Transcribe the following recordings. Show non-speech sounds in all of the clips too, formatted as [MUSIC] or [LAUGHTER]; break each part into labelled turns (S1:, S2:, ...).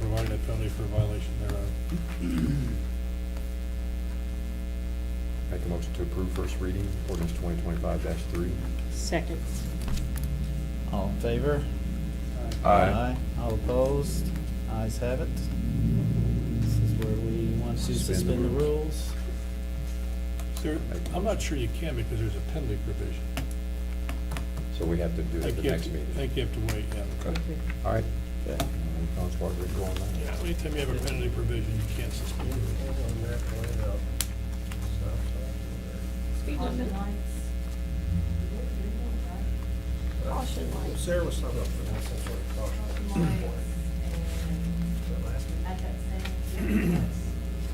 S1: penalty for violation thereof.
S2: Make a motion to approve first reading, ordinance twenty twenty-five three.
S3: Second.
S4: All in favor? All opposed? Ayes have it. This is where we want to
S2: Suspend the
S4: suspend the
S2: rules.
S4: rules.
S1: There, I'm not sure you can because there's a penalty provision.
S2: So we have to do
S1: I
S2: it at
S1: think
S2: the
S1: you have
S2: next
S1: to,
S2: meeting.
S1: I think you have to wait, yeah.
S2: Okay. All right. Uh,
S4: Okay.
S2: Any thoughts, Barbara, go on that?
S1: Yeah, anytime you have a penalty provision, you can't suspend. it.
S5: Speed limit. Caution lights.
S6: Sarah was talking about putting some sort of caution lights. That last meeting.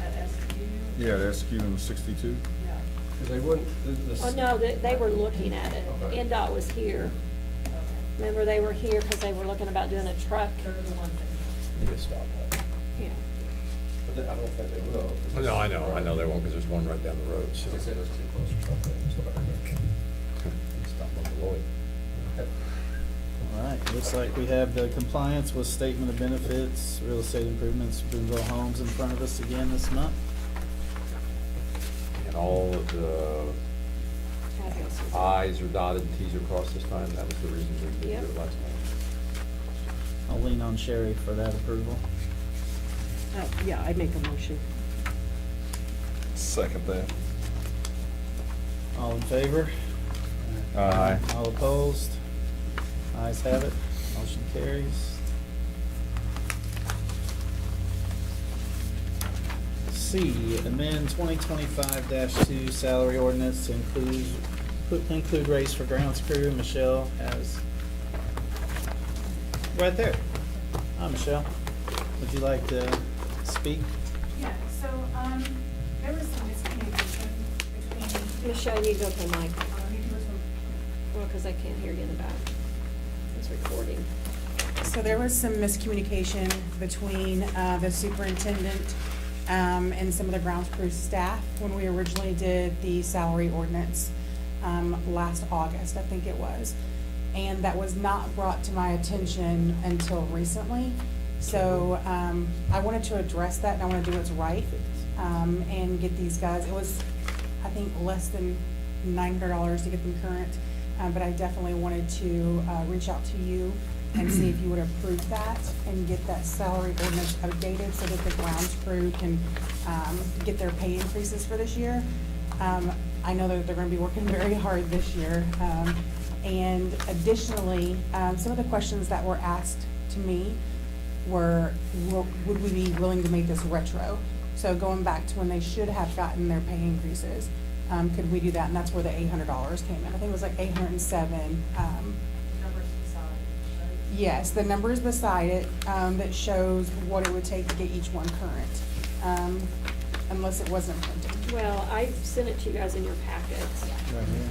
S7: at that same, at SU.
S8: Yeah, the SQ and the sixty-two.
S7: Yeah.
S6: 'Cause they wouldn't, the- the-
S5: Oh, no, they, they were looking at it. NDOT was here. Remember, they were here because they were looking about doing a truck.
S7: They're the ones that.
S6: Need to stop that.
S5: Yeah.
S6: But then I don't think they will. 'cause
S2: No, I know, I know they won't, because there's one right down the road,
S6: They
S2: so.
S6: said it was too close or something, that's what I heard. Stop on Beloit.
S4: All right, looks like we have the compliance with statement of benefits, real estate improvements, Boonville Homes in front of us again this month.
S2: And all of the
S5: Fabulous.
S2: i's are dotted and t's are crossed this time, that was the reason we did it
S5: Yep.
S2: last time.
S4: I'll lean on Sherry for that approval.
S3: Uh, Yeah, I make a motion.
S8: Second that.
S4: All in favor?
S8: Aye.
S4: All opposed? Ayes have it. Motion carries. C, amend twenty twenty-five two salary ordinance to include, put- include raise for grounds crew. Michelle has, right there. Hi, Michelle. Would you like to speak?
S7: Yeah, so, um, there was some miscommunication between,
S5: Michelle, you go to the mic.
S7: um, you
S5: Well, because I can't hear you in the back. It's recording.
S9: So there was some miscommunication between uh, the superintendent um, and some of the grounds crew staff when we originally did the salary ordinance um, last August, I think it was. And that was not brought to my attention until recently. So um, I wanted to address that, and I want to do what's right um, and get these guys, it was, I think, less than nine hundred dollars to get them current, uh, but I definitely wanted to, uh, reach out to you and see if you would approve that and get that salary ordinance updated so that the grounds crew can, um, get their pay increases for this year. Um, I know that they're gonna be working [LAUGHS] very hard this year, um, and additionally, um, some of the questions that were asked to me were, wo- would we be willing to make this retro? So going back to when they should have gotten their pay increases, um, could we do that? And that's where the eight hundred dollars came in. I think it was like eight hundred and seven, um,
S7: numbers beside, right?
S9: Yes, the number is beside it, um, that shows what it would take to get each one current, um, unless it wasn't printed.
S5: Well, I sent it to you guys in your packets.
S4: Right here.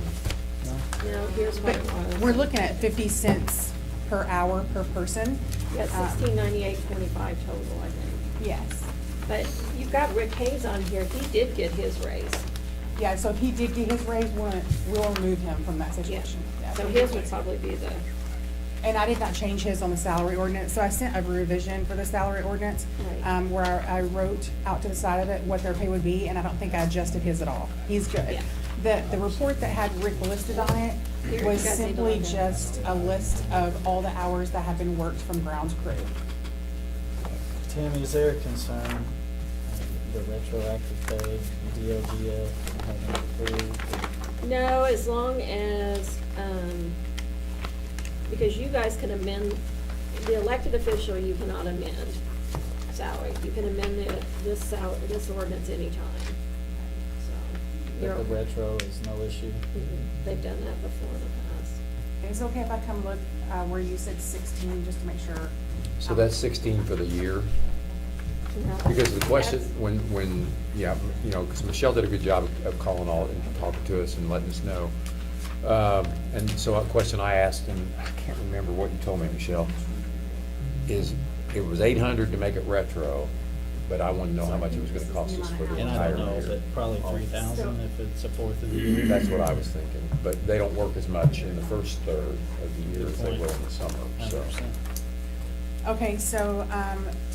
S4: No?
S5: No, here's what it
S9: But
S5: was.
S9: we're looking at fifty cents per hour per person.
S5: Yeah,
S9: Um,
S5: sixteen ninety-eight twenty-five total, I think.
S9: Yes.
S5: But you've got Rick Hayes on here, he did get his raise.
S9: Yeah, so if he did get his raise, we'll, we'll remove him from that
S5: Yeah,
S9: situation. Yeah.
S5: so his would probably be the,
S9: And I did not change his on the salary ordinance, so I sent a revision for the salary ordinance,
S5: Right.
S9: um, where I I wrote out to the side of it what their pay would be, and I don't think I adjusted his at all. He's good.
S5: Yeah.
S9: The, the report that had Rick listed on it
S5: Here,
S9: was
S5: you guys need to
S9: simply
S5: log in.
S9: just a list of all the hours that have been worked from grounds crew.
S4: Tammy, is there a concern, uh, the retroactive pay, DLGF, having approved?
S5: no, as long as, um, because you guys can amend, the elected official, you cannot amend salary. You can amend it, this sal, this ordinance anytime, so.
S4: That
S5: you're-
S4: the retro is no issue?
S5: Mhm, They've done that before in the past.
S9: Is it okay if I come look, uh, where you said sixteen, just to make sure?
S5: Mm-hmm.
S2: So that's sixteen for the year.
S5: No.
S2: Because the question,
S5: That's-
S2: when, when, yeah, you know, because Michelle did a good job of- of calling all and talking to us and letting us know. Um, And so a question I asked, and I can't remember what you told me, Michelle, is it was eight hundred to make it retro, but I want to know how much it was going to cost us for the
S4: And I
S2: entire
S4: don't know,
S2: year.
S4: but probably three thousand if it's a fourth of the year.
S2: That's what I was thinking, but they don't work as much in the first third of the year as they will in the summer, so.
S4: Hundred percent.
S9: Okay, so, um,